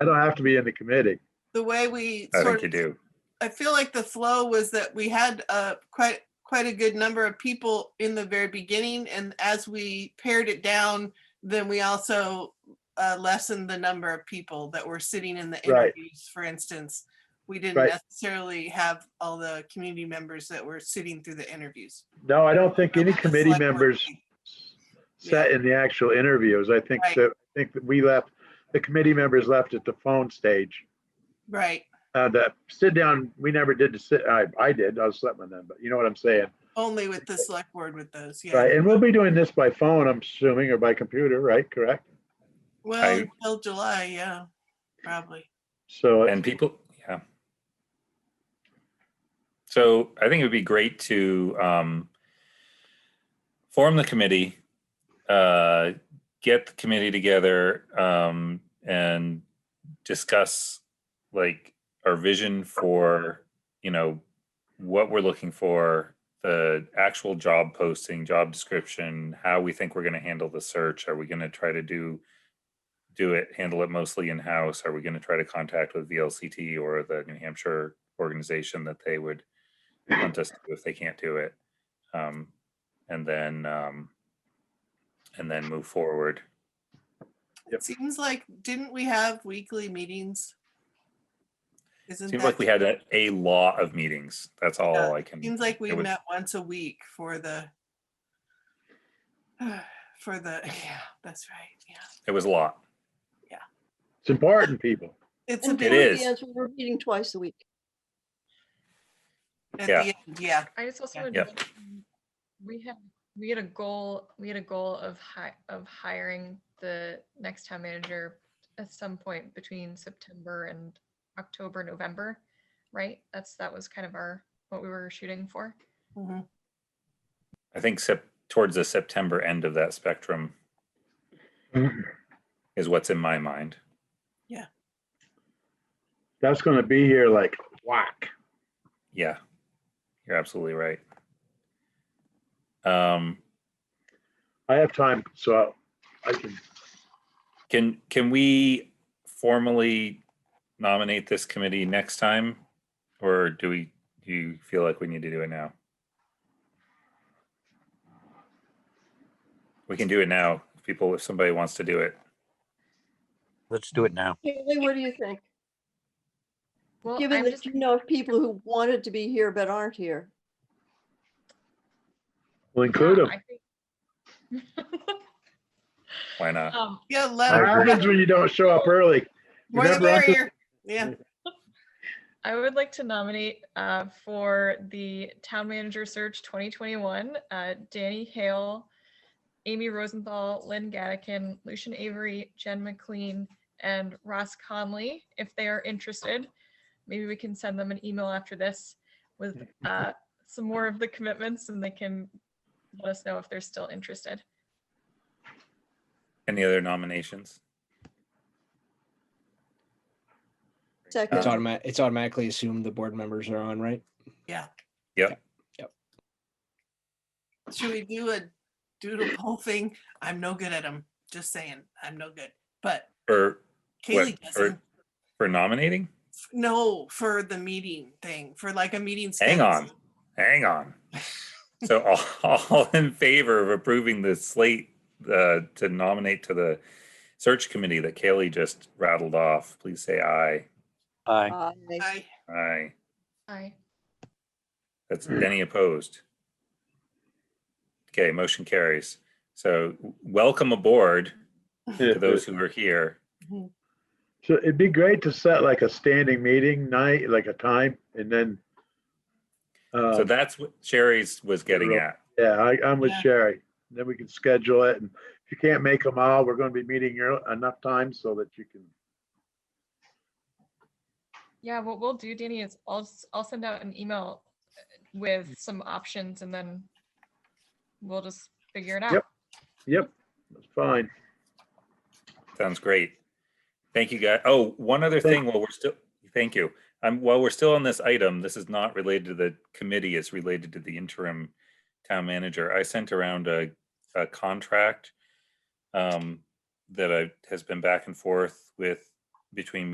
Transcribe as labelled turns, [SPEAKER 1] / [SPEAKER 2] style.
[SPEAKER 1] I don't have to be in the committee.
[SPEAKER 2] the way we
[SPEAKER 3] I
[SPEAKER 2] sort
[SPEAKER 3] think you
[SPEAKER 2] of,
[SPEAKER 3] do.
[SPEAKER 2] I feel like the flow was that we had uh, quite, quite a good number of people in the very beginning. And as we pared it down, then we also uh, lessened the number of people that were sitting in the
[SPEAKER 1] Right.
[SPEAKER 2] interviews, for instance. We didn't
[SPEAKER 1] Right.
[SPEAKER 2] necessarily have all the community members that were sitting through the interviews.
[SPEAKER 1] No, I don't think any
[SPEAKER 2] The
[SPEAKER 1] committee
[SPEAKER 2] select board
[SPEAKER 1] members
[SPEAKER 2] meeting.
[SPEAKER 1] sat in the actual interviews. I think
[SPEAKER 2] Right.
[SPEAKER 1] that, I think that we left, the committee members left at the phone stage.
[SPEAKER 2] Right,
[SPEAKER 1] Uh, the sit down, we never did the sit, I, I did, I was sleeping then, but you know what I'm saying?
[SPEAKER 2] only with the select board with those, yeah.
[SPEAKER 1] Right, and we'll be doing this by phone, I'm assuming, or by computer, right? Correct?
[SPEAKER 2] Well,
[SPEAKER 3] I-
[SPEAKER 2] until July, yeah, probably.
[SPEAKER 1] So,
[SPEAKER 3] And people, yeah. So I think it would be great to um, form the committee, uh, get the committee together, um, and discuss like our vision for you know what we're looking for, the actual job posting, job description, how we think we're going to handle the search. Are we going to try to do do it, handle it mostly in-house? Are we going to try to contact with VLCT or the New Hampshire organization that they would want us to do if they can't do it? Um, and then, um, and then move forward.
[SPEAKER 1] Yep.
[SPEAKER 2] It seems like, didn't we have weekly meetings? Isn't
[SPEAKER 3] Seems like we
[SPEAKER 2] that,
[SPEAKER 3] had a, a lot of meetings. That's all I can.
[SPEAKER 2] seems like we
[SPEAKER 3] it was-
[SPEAKER 2] met once a week for the for the, yeah, that's right, yeah.
[SPEAKER 3] It was a lot.
[SPEAKER 1] it's important, people.
[SPEAKER 2] It's a
[SPEAKER 4] And
[SPEAKER 2] bit
[SPEAKER 3] It
[SPEAKER 4] before
[SPEAKER 3] is.
[SPEAKER 4] the answer, we're meeting twice a week.
[SPEAKER 2] at
[SPEAKER 3] yeah.
[SPEAKER 2] the end, yeah.
[SPEAKER 5] I just also
[SPEAKER 2] Yeah.
[SPEAKER 5] would
[SPEAKER 3] Yeah.
[SPEAKER 5] mention, um, we had, we had a goal, we had a goal of hi, of hiring the next town manager at some point between September and October, November, right? That's, that was kind of our, what we were shooting for.
[SPEAKER 2] mhm.
[SPEAKER 3] I think sep- towards the September end of that spectrum
[SPEAKER 2] Mm-hmm.
[SPEAKER 3] is what's in my mind.
[SPEAKER 1] That's gonna be here like whack.
[SPEAKER 3] Yeah, you're absolutely right. Um,
[SPEAKER 1] I have time, so I can,
[SPEAKER 3] Can, can we formally nominate this committee next time? Or do we, do you feel like we need to do it now? We can do it now. If people, if somebody wants to do it.
[SPEAKER 6] Let's do it now.
[SPEAKER 4] Haley, what do you think?
[SPEAKER 5] Well,
[SPEAKER 4] Given
[SPEAKER 5] I'm
[SPEAKER 4] that
[SPEAKER 5] just,
[SPEAKER 4] you know of people who wanted to be here but aren't here.
[SPEAKER 1] we'll include
[SPEAKER 5] yeah,
[SPEAKER 1] them.
[SPEAKER 5] I think-
[SPEAKER 3] Why not?
[SPEAKER 5] Um,
[SPEAKER 2] Yeah,
[SPEAKER 1] What
[SPEAKER 2] love,
[SPEAKER 1] happens when you don't show up early?
[SPEAKER 2] more the
[SPEAKER 1] Remember, I said-
[SPEAKER 2] merrier, yeah.
[SPEAKER 5] I would like to nominate uh, for the Town Manager Search 2021, uh, Danny Hale, Amy Rosenthal, Lynn Gattikin, Lucian Avery, Jen McLean, and Ross Conley, if they are interested. Maybe we can send them an email after this with uh, some more of the commitments and they can let us know if they're still interested.
[SPEAKER 3] Any other nominations?
[SPEAKER 4] Second,
[SPEAKER 7] It's
[SPEAKER 3] Um,
[SPEAKER 7] automatic, it's automatically assumed the board members are on, right?
[SPEAKER 2] Should we do a doodle poll thing? I'm no good at them, just saying, I'm no good, but
[SPEAKER 3] Or what,
[SPEAKER 2] Kaylee doesn't.
[SPEAKER 3] for, for nominating?
[SPEAKER 2] No, for the meeting thing, for like a meeting.
[SPEAKER 3] Hang on.
[SPEAKER 2] schedule.
[SPEAKER 3] Hang on. So all, all in favor of approving the slate uh, to nominate to the search committee that Kaylee just rattled off, please say aye.
[SPEAKER 6] Aye.
[SPEAKER 4] aye.
[SPEAKER 2] I,
[SPEAKER 3] Aye.
[SPEAKER 5] Aye.
[SPEAKER 3] That's
[SPEAKER 1] Hmm.
[SPEAKER 3] any opposed. Okay, motion carries. So w- welcome aboard to those who are here.
[SPEAKER 1] So it'd be great to set like a standing meeting night, like a time, and then.
[SPEAKER 3] So
[SPEAKER 1] uh,
[SPEAKER 3] that's what Sherry's was getting at.
[SPEAKER 1] Yeah, I, I'm with
[SPEAKER 2] Yeah.
[SPEAKER 1] Sherry. Then we can schedule it. And if you can't make them all, we're gonna be meeting here enough time so that you can,
[SPEAKER 5] Yeah, what we'll do, Danny, is I'll, s- I'll send out an email uh, with some options and then we'll just figure it out.
[SPEAKER 1] Yep. yep, that's fine.
[SPEAKER 3] Sounds great. Thank you, guys. Oh, one other
[SPEAKER 1] Thank-
[SPEAKER 3] thing while we're still, thank you. Um, while we're still on this item, this is not related to the committee, it's related to the interim town manager. I sent around a, a contract um, that I, has been back and forth with between